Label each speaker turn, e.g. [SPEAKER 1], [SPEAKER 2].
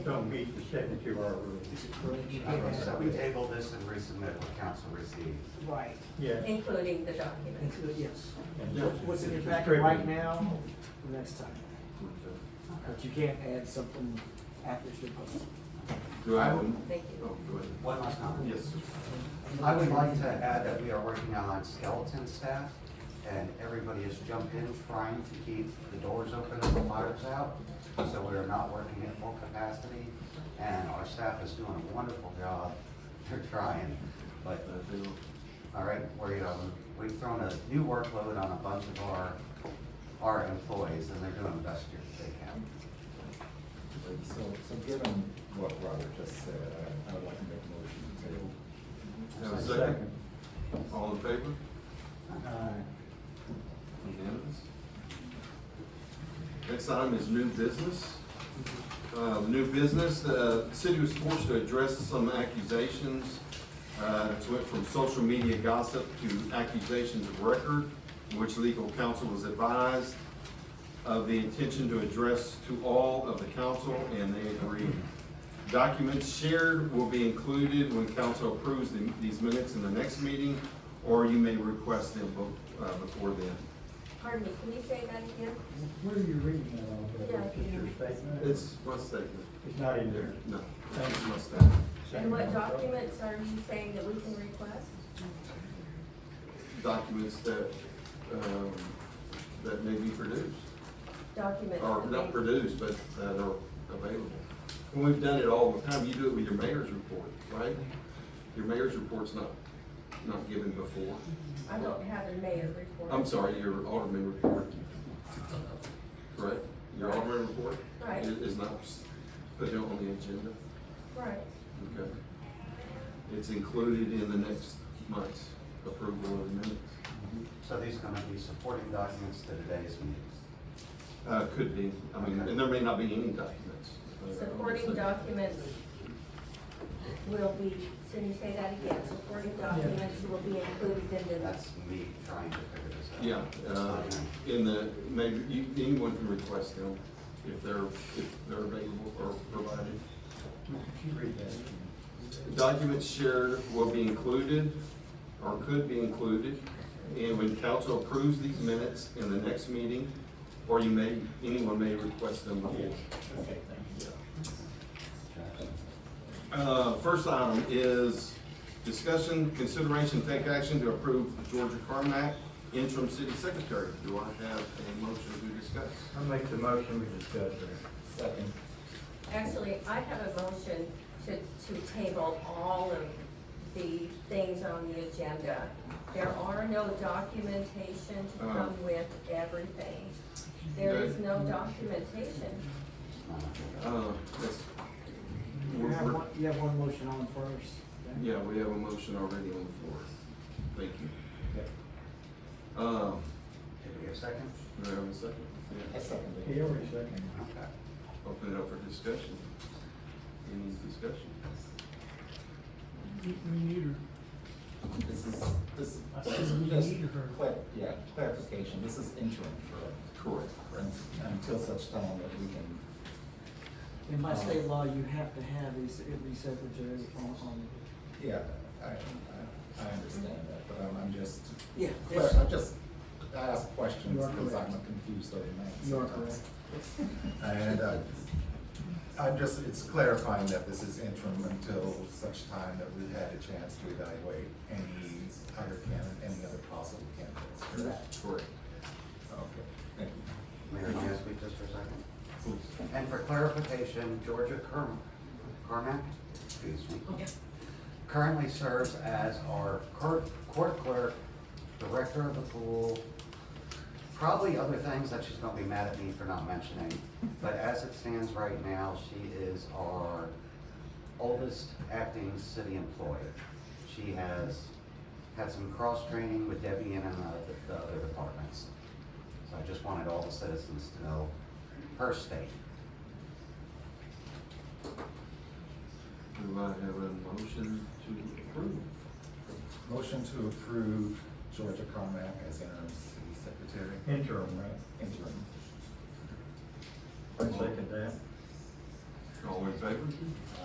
[SPEAKER 1] don't meet the seventy-two hour rule.
[SPEAKER 2] Is it correct?
[SPEAKER 3] So we table this and resubmit what council received.
[SPEAKER 2] Right,
[SPEAKER 1] Yeah.
[SPEAKER 4] including the document.
[SPEAKER 2] Include- yes.
[SPEAKER 1] And
[SPEAKER 2] No,
[SPEAKER 1] just-
[SPEAKER 2] What's in your
[SPEAKER 1] just
[SPEAKER 2] packet right
[SPEAKER 1] distribute.
[SPEAKER 2] now, next time, but you can't add something after it's been posted.
[SPEAKER 5] Do I have a?
[SPEAKER 4] Thank you.
[SPEAKER 5] Oh, go ahead.
[SPEAKER 3] One last comment.
[SPEAKER 5] Yes. sir.
[SPEAKER 3] I would like to add that we are working on skeleton staff, and everybody has jumped in trying to keep the doors open and the fires out, so we are not working at full capacity, and our staff is doing a wonderful job, they're trying, but,
[SPEAKER 5] Uh, they don't-
[SPEAKER 3] all right, we, um, we've thrown a new workload on a bunch of our, our employees, and they're doing the best they can.
[SPEAKER 6] So, so given what Robert just said, I- I would like to make a motion to table.
[SPEAKER 5] Have a second? All in favor?
[SPEAKER 3] uh,
[SPEAKER 5] Unanimous? Next item is new business. Uh, new business, the city was forced to address some accusations. Uh, it went from social media gossip to accusations of record, in which legal counsel was advised of the intention to address to all of the council, and they agreed. Documents shared will be included when council approves the- these minutes in the next meeting, or you may request them be- uh, before then.
[SPEAKER 4] Pardon me, can you say that again?
[SPEAKER 1] Where are you reading that off of?
[SPEAKER 4] Yeah.
[SPEAKER 1] It's just your statement?
[SPEAKER 5] It's my statement.
[SPEAKER 1] It's not in there.
[SPEAKER 5] No, it's my statement.
[SPEAKER 4] And what documents are you saying that we can request?
[SPEAKER 5] Documents that, um, that may be produced,
[SPEAKER 4] Documents.
[SPEAKER 5] or
[SPEAKER 4] that
[SPEAKER 5] not
[SPEAKER 4] they-
[SPEAKER 5] produced, but that are available. And we've done it all the time. You do it with your mayor's report, right? Your mayor's report's not, not given before.
[SPEAKER 4] I don't have a mayor report.
[SPEAKER 5] I'm sorry, your alderman report. Correct? Your alderman report?
[SPEAKER 4] Right.
[SPEAKER 5] is- Is not put on the agenda.
[SPEAKER 4] Right.
[SPEAKER 5] Okay. It's included in the next month's approval of the minutes.
[SPEAKER 3] So these are gonna be supporting documents to today's meeting.
[SPEAKER 5] Uh, could be, I mean, and there may not be any documents.
[SPEAKER 4] Supporting documents will be, can you say that again? Supporting documents will be included in the,
[SPEAKER 3] That's me trying to figure this out.
[SPEAKER 5] Yeah, uh, in the, maybe, you, anyone can request them if they're, if they're available or provided.
[SPEAKER 1] You read that.
[SPEAKER 5] Documents shared will be included, or could be included, and when council approves these minutes in the next meeting, or you may, anyone may request them before.
[SPEAKER 1] Okay, thank you.
[SPEAKER 5] Uh, First item is discussion, consideration, take action to approve Georgia Carmack interim city secretary. Do I have a motion to discuss?
[SPEAKER 1] I'll make the motion we discussed there.
[SPEAKER 6] Second.
[SPEAKER 4] actually, I have a motion to, to table all of the things on the agenda. There are no documentation to
[SPEAKER 5] Uh.
[SPEAKER 4] come with everything. There is no documentation.
[SPEAKER 5] Uh, yes.
[SPEAKER 2] You
[SPEAKER 5] We're-
[SPEAKER 2] have
[SPEAKER 5] we're-
[SPEAKER 2] one, you have one motion on first. okay?
[SPEAKER 5] Yeah, we have a motion already on the floor. Thank you. Um,
[SPEAKER 3] Did we get a second?
[SPEAKER 5] do I have a second?
[SPEAKER 6] I
[SPEAKER 5] Yeah.
[SPEAKER 6] second it.
[SPEAKER 1] He already seconded.
[SPEAKER 3] Okay.
[SPEAKER 5] Open it up for discussion. Any discussion?
[SPEAKER 6] This is, this is just, clar- yeah, clarification, this is interim, correct?
[SPEAKER 5] Correct.
[SPEAKER 6] And- Until such time that we can,
[SPEAKER 2] And
[SPEAKER 3] Uh,
[SPEAKER 2] by state law, you have to have a, s- every secretary on, on,
[SPEAKER 6] yeah, I, I, I understand that, but I'm, I'm just,
[SPEAKER 2] yeah,
[SPEAKER 6] clar-
[SPEAKER 2] it's,
[SPEAKER 6] I'm just, I ask questions
[SPEAKER 2] You are
[SPEAKER 6] because I'm a
[SPEAKER 2] correct.
[SPEAKER 6] confused old man.
[SPEAKER 2] you are
[SPEAKER 6] sometimes.
[SPEAKER 2] correct.
[SPEAKER 6] And uh, I'm just, it's clarifying that this is interim until such time that we've had a chance to evaluate any other candidate, any other possible candidates. correct?
[SPEAKER 5] Correct.
[SPEAKER 6] Okay, thank you.
[SPEAKER 3] Mayor, can I speak just for a second? And for clarification, Georgia Carm- Carmack, excuse me, currently serves as our court court clerk, director of the pool, probably other things that she's gonna be mad at me for not mentioning. But as it stands right now, she is our oldest acting city employee. She has had some cross-training with Debbie and uh, the the other departments. So I just wanted all the citizens to know her state.
[SPEAKER 5] Do I have a motion to approve?
[SPEAKER 6] Motion to approve Georgia Carmack as interim city secretary.
[SPEAKER 1] Interim, right?
[SPEAKER 6] Interim.
[SPEAKER 1] I second that.
[SPEAKER 5] All All in favor?